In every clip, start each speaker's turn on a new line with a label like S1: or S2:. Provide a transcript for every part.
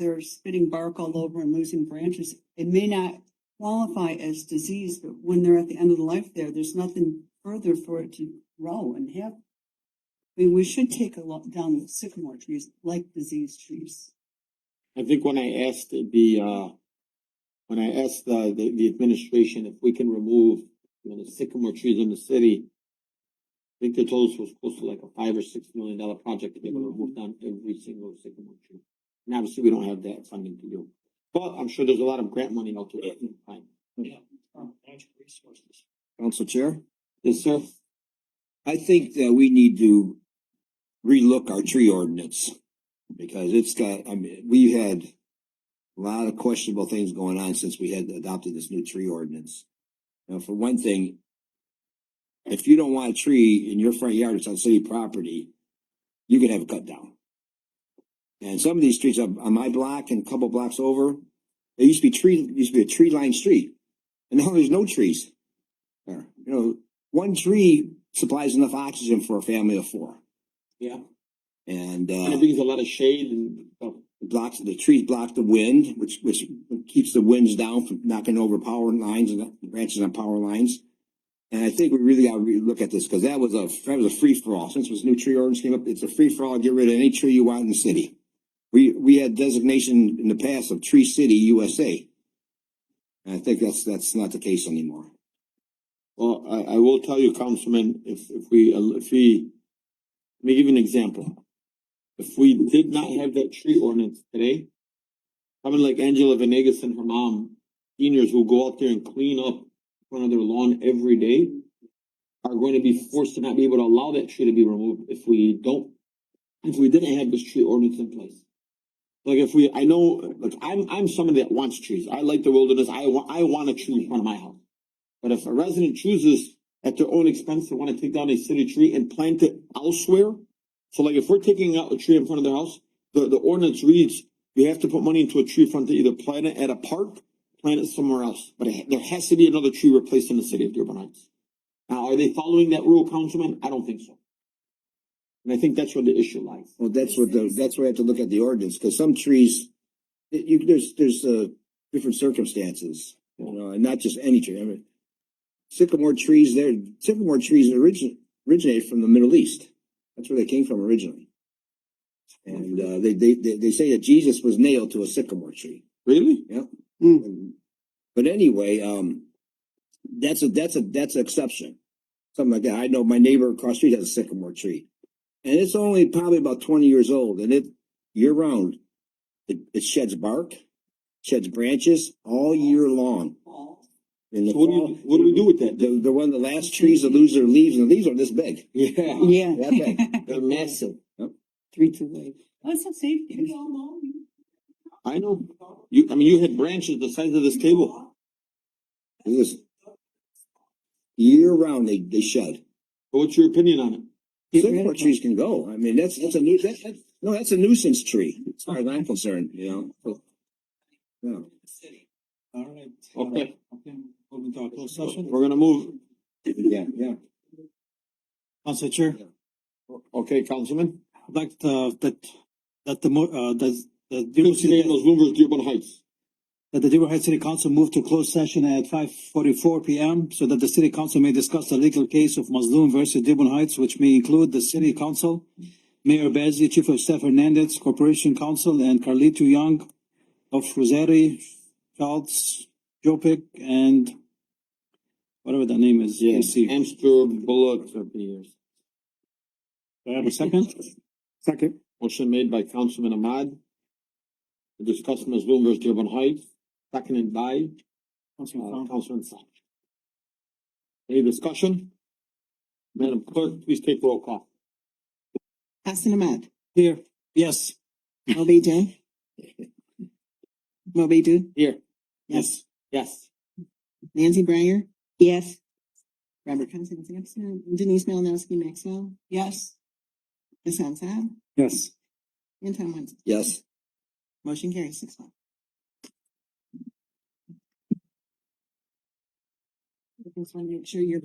S1: they're spitting bark all over and losing branches, it may not qualify as disease, but when they're at the end of the life there, there's nothing further for it to grow and have. I mean, we should take a look down the sycamore trees, like disease trees.
S2: I think when I asked the, uh, when I asked the, the, the administration if we can remove, you know, the sycamore trees in the city, I think the total was close to like a five or six million dollar project to be able to remove down every single sycamore tree. And obviously, we don't have that funding to do, but I'm sure there's a lot of grant money out there. that we can find.
S3: Oh,
S4: Council Chair?
S2: Yes, sir.
S4: I think that we need to relook our tree ordinance. Because it's got, I mean, we've had a lot of questionable things going on since we had adopted this new tree ordinance. Now, for one thing, if you don't want a tree in your front yard, it's on city property, you can have it cut down. And some of these streets on, on my block and a couple blocks over, there used to be tree, used to be a tree lined street. And now there's no trees there. You know, one tree supplies enough oxygen for a family of four.
S2: Yeah, and
S4: And uh,
S2: it brings a lot of shade and stuff.
S4: it blocks the trees block the wind, which which keeps the winds down from knocking over power lines and branches on power lines. And I think we really got to re- look at this because that was a that was a free for all. Since this new tree ordinance came up, it's a free for all. Get rid of any tree you want in the city. We we had designation in the past of Tree City USA, and I think that's that's not the case anymore.
S2: Well, Uh, I, I will tell you, Councilman, if, if we, uh, if we, let me give you an example. If we did not have that tree ordinance today, someone like Angela Venegas and her mom, seniors who go out there and clean up in front of their lawn every day, are going to be forced to not be able to allow that tree to be removed if we don't, if we didn't have this tree ordinance in place. Like if we, I know, like I'm, I'm somebody that wants trees. I like the wilderness. I want, I want a tree in front of my house. But if a resident chooses at their own expense to want to take down a city tree and plant it elsewhere, so like if we're taking out a tree in front of their house, the, the ordinance reads, you have to put money into a tree fund to either plant it at a park, plant it somewhere else, but it- there has to be another tree replaced in the city of Dearborn Heights. Now, are they following that rule, Councilman? I don't think so. And I think that's where the issue lies.
S4: Well, that's what the, that's where I have to look at the ordinance, cause some trees, it- you, there's, there's, uh, different circumstances. You know, and not just any tree, I mean, sycamore trees there, sycamore trees origin, originated from the Middle East. That's where they came from originally. And, uh, they, they, they, they say that Jesus was nailed to a sycamore tree.
S2: Really?
S1: Mm.
S4: But anyway, um, that's a, that's a, that's an exception. Something like that. I know my neighbor across the street has a sycamore tree. And it's only probably about twenty years old and it, year round, it, it sheds bark, sheds branches all year long. In the
S2: So what do you,
S4: fall,
S2: what do we do with that?
S4: they're, they're one of the last trees to lose their leaves and the leaves are this big.
S2: Yeah,
S1: Yeah.
S4: That big.
S2: they're massive.
S1: Three to wave. That's a safety.
S2: I know. You, I mean, you had branches the size of this table.
S4: It is. Year round, they, they shed.
S2: So What's your opinion on it?
S1: Get rid of
S4: Sycamore
S1: them.
S4: trees can go. I mean, that's, that's a new, that, that, no, that's a nuisance tree, as far as I'm concerned, you know? Yeah.
S3: All right.
S2: Okay.
S3: Okay, moving to our closed session.
S2: We're gonna move.
S4: Yeah, yeah.
S3: Council Chair,
S2: Okay, Councilman.
S3: I'd like to, that, that the, mo- uh, that, that Dearborn
S2: Fifty
S3: City,
S2: Daniels, Bloomberg, Dearborn Heights.
S3: that the Dearborn Heights City Council move to closed session at five forty-four P M. So that the city council may discuss the legal case of Mazloom versus Dearborn Heights, which may include the city council, Mayor Bazey, Chief of Staff Hernandez, Corporation Council, and Carlito Young of Rosari, Schultz, Jopik, and whatever that name is. KC.
S2: Amster Bullock. Motion
S3: Do I have a second?
S5: Second.
S2: made by Councilman Ahmad. To discuss Ms. Bloomberg's Dearborn Heights, seconded by uh,
S3: Councilman Fong.
S2: Councilman Saab. Any discussion? Madam Clerk, please take roll call.
S6: Hassan Ahmad,
S3: Here, yes.
S6: Moby Jen. Moby Du,
S2: Here.
S6: yes,
S2: Yes.
S6: Nancy Breyer,
S1: Yes.
S6: Robert Constance Sampson, Denise Malinowski Maxwell,
S1: Yes.
S6: Hassan Saab,
S5: Yes.
S6: and Tom Wenzel.
S4: Yes.
S6: Motion carries six one. Just want to make sure you're.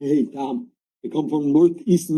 S2: Hey, Tom. They come from northeastern